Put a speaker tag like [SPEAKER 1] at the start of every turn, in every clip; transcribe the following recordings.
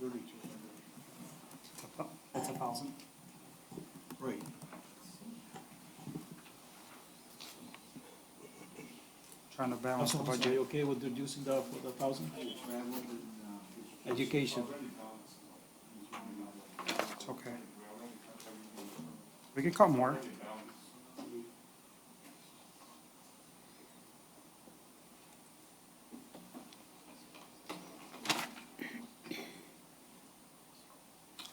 [SPEAKER 1] thirty-two hundred.
[SPEAKER 2] That's a thousand.
[SPEAKER 1] Right.
[SPEAKER 2] Trying to balance the
[SPEAKER 3] Councilman, are
[SPEAKER 2] budget.
[SPEAKER 3] you okay with reducing the, the thousand? Education.
[SPEAKER 2] It's okay. We can cut more.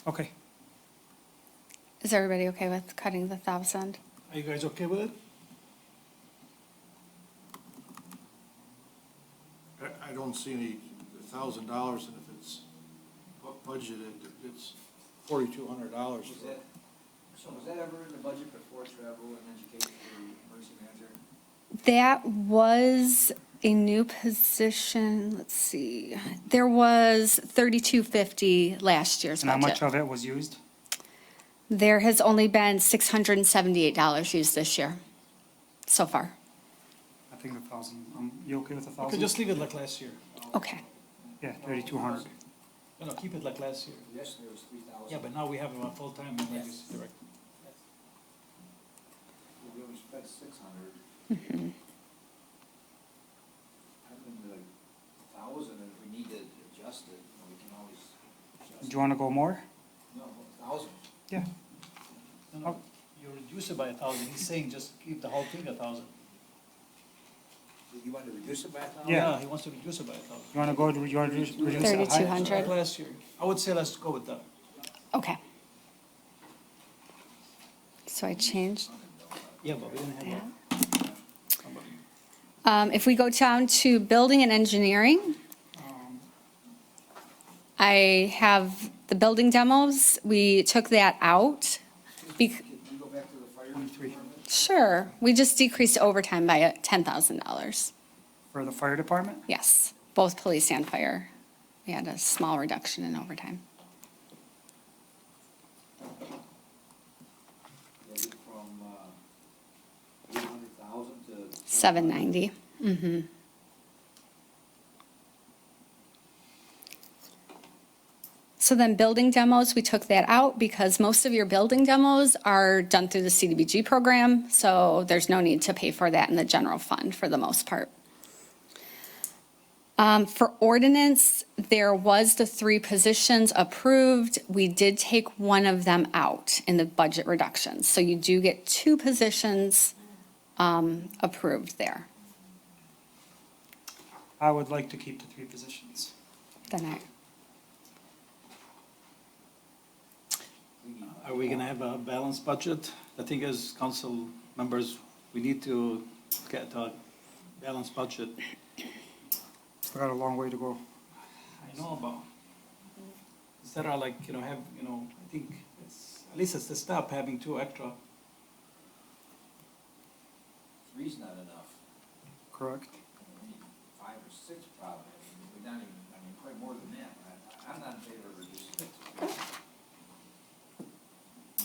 [SPEAKER 2] Okay,
[SPEAKER 4] Is everybody okay with cutting the thousand?
[SPEAKER 3] Are you guys okay with it?
[SPEAKER 1] I, I don't see any thousand dollars, and if it's bu- budgeted, it's forty-two hundred dollars.
[SPEAKER 5] Was that, so was that ever in the budget before travel and education for emergency manager?
[SPEAKER 4] That was a new position, let's see, there was thirty-two fifty last year's
[SPEAKER 2] and how much
[SPEAKER 4] budget.
[SPEAKER 2] of it was used?
[SPEAKER 4] There has only been six hundred and seventy-eight dollars used this year, so far.
[SPEAKER 2] I think a thousand. Um, you okay with a
[SPEAKER 3] Okay, just
[SPEAKER 2] thousand?
[SPEAKER 3] leave it like last year.
[SPEAKER 4] Okay,
[SPEAKER 2] Yeah, thirty-two hundred.
[SPEAKER 3] No, no, keep it like last year.
[SPEAKER 5] Yes, there was three thousand.
[SPEAKER 3] Yeah, but now we have a full-time emergency
[SPEAKER 5] Yes.
[SPEAKER 3] director.
[SPEAKER 5] We only spent six hundred.
[SPEAKER 4] Mm-hmm.
[SPEAKER 5] I mean, like, a thousand, and if we need to adjust it, you know, we can always
[SPEAKER 2] Do
[SPEAKER 5] adjust.
[SPEAKER 2] you wanna go more?
[SPEAKER 5] No, a thousand.
[SPEAKER 2] Yeah,
[SPEAKER 3] No, no, you reduce it by a thousand. He's saying just keep the whole thing a thousand.
[SPEAKER 5] You want to reduce it by a thousand?
[SPEAKER 2] Yeah.
[SPEAKER 3] He wants to reduce it by a thousand.
[SPEAKER 2] you wanna go, to- you wanna reduce reduce it higher?
[SPEAKER 4] thirty-two hundred,
[SPEAKER 3] Like last year. I would say let's go with that.
[SPEAKER 4] okay. So I changed
[SPEAKER 3] Yeah, but we didn't have
[SPEAKER 4] that.
[SPEAKER 3] that.
[SPEAKER 4] Um, if we go down to building and engineering, I have the building demos, we took that out. bec-
[SPEAKER 5] Can we go back to the fire
[SPEAKER 2] Twenty-three
[SPEAKER 5] department?
[SPEAKER 4] Sure, we just decreased overtime by uh, $10,000.
[SPEAKER 2] for the fire department?
[SPEAKER 4] Yes, both police and fire. We had a small reduction in overtime.
[SPEAKER 5] Is it from, uh, eight hundred thousand to?
[SPEAKER 4] 790. Mm-hmm. So then building demos, we took that out because most of your building demos are done through the CDBG program, so there's no need to pay for that in the general fund for the most part. Um, for ordinance, there was the three positions approved. We did take one of them out in the budget reductions. So you do get two positions um, approved there.
[SPEAKER 2] I would like to keep the three positions.
[SPEAKER 4] Then I,
[SPEAKER 3] Are we gonna have a balanced budget? The thing is, council members, we need to get a balanced budget.
[SPEAKER 2] Still got a long way to go.
[SPEAKER 3] I know about. Instead of like, you know, have, you know, I think it's, at least it's the stop having two extra.
[SPEAKER 5] Three's not enough.
[SPEAKER 2] Correct.
[SPEAKER 5] We need five or six probably, I mean, we're not even, I mean, quite more than that, I, I'm not in favor of reducing it. to three.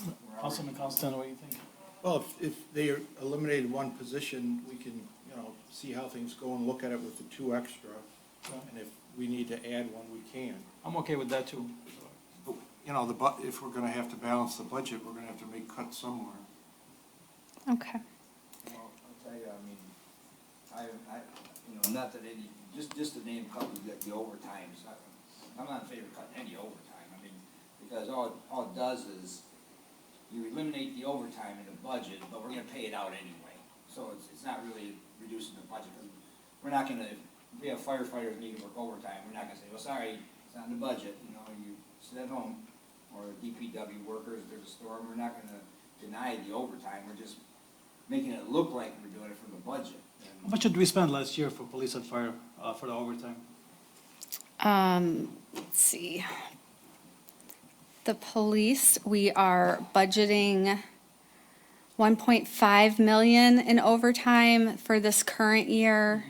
[SPEAKER 5] We're already-
[SPEAKER 3] Councilman Constant, what do you think?
[SPEAKER 1] Well, if, if they eliminated one position, we can, you know, see how things go and look at it with the two extra. And if we need to add one, we can.
[SPEAKER 3] I'm okay with that too.
[SPEAKER 1] But, You know, the bu, if we're gonna have to balance the budget, we're gonna have to make cuts somewhere.
[SPEAKER 4] okay.
[SPEAKER 5] Well, I'll tell you, I mean, I, I, you know, not that any, just, just to name a couple, like the overtimes, I, I'm not in favor of cutting any overtime, I mean, because all, all it does is, you eliminate the overtime in the budget, but we're gonna pay it out anyway, so it's, it's not really reducing the budget, 'cause we're not gonna, if we have firefighters need to work overtime, we're not gonna say, well, sorry, it's not in the budget, you know, you sit at home, or DPW workers, there's a storm, we're not gonna deny the overtime, we're just making it look like we're doing it from the budget.
[SPEAKER 3] How much did we spend last year for police and fire, uh, for the overtime?
[SPEAKER 4] Um, let's see. The police, we are budgeting one point five million in overtime for this current year.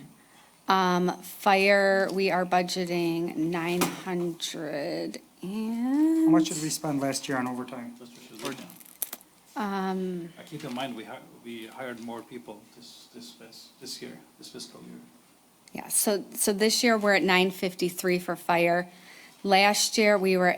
[SPEAKER 4] Um, fire, we are budgeting nine hundred and.
[SPEAKER 2] How much did we spend last year on overtime?
[SPEAKER 3] That's what she's looking at. Uh, keep in mind, we hi, we hired more people this, this fis, this year, this fiscal year.
[SPEAKER 4] Yeah, so, so this year we're at nine fifty-three for fire. Last year, we were